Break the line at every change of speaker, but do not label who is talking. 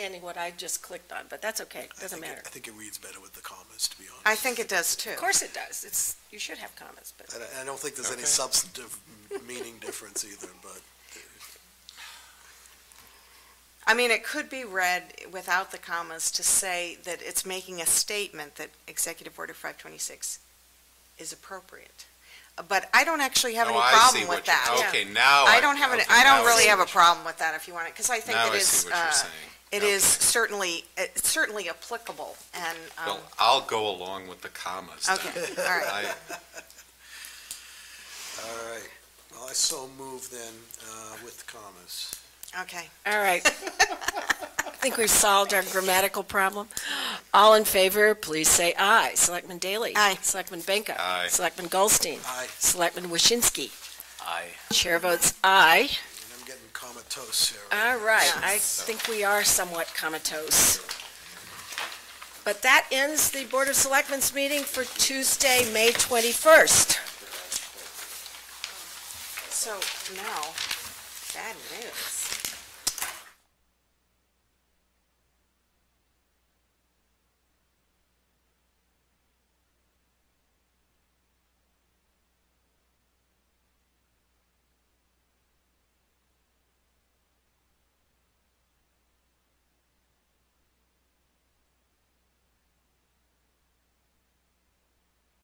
understanding what I just clicked on, but that's okay,
I
doesn't
think it-
matter.
I think it reads better with the commas, to be honest.
I think it does too.
Of course it does, it's, you should have comments, but
And I, I don't think there's any
Okay.
substantive meaning difference either, but
I mean, it could be read without the commas to say that it's making a statement that Executive Order 526 is appropriate. But I don't actually have any
Oh, I see
problem
what
with
you're-
that.
Okay, now.
I don't have, an.
okay,
I
now
don't really
see
have a
what you-
problem with that if you want it, because I think
Now
it
I see
is,
what you're
uh,
saying.
it
Okay.
is certainly, it's certainly applicable and, um,
Well, I'll go along with the commas. then.
okay, all right.
I-
All right, well, I so move then, uh, with commas.
Okay.
All right. I think we've solved our grammatical problem. All in favor, please say aye. Selectman Daley.
Aye.
Selectman Benka.
Aye.
Selectman Goldstein.
Aye,
Selectman Waschinsky.
Aye.
Chair votes aye.
and I'm getting comatose here.
All right, I think we are somewhat comatose. But that ends the Board of Selectmen's meeting for Tuesday, May 21st.
So now, bad news.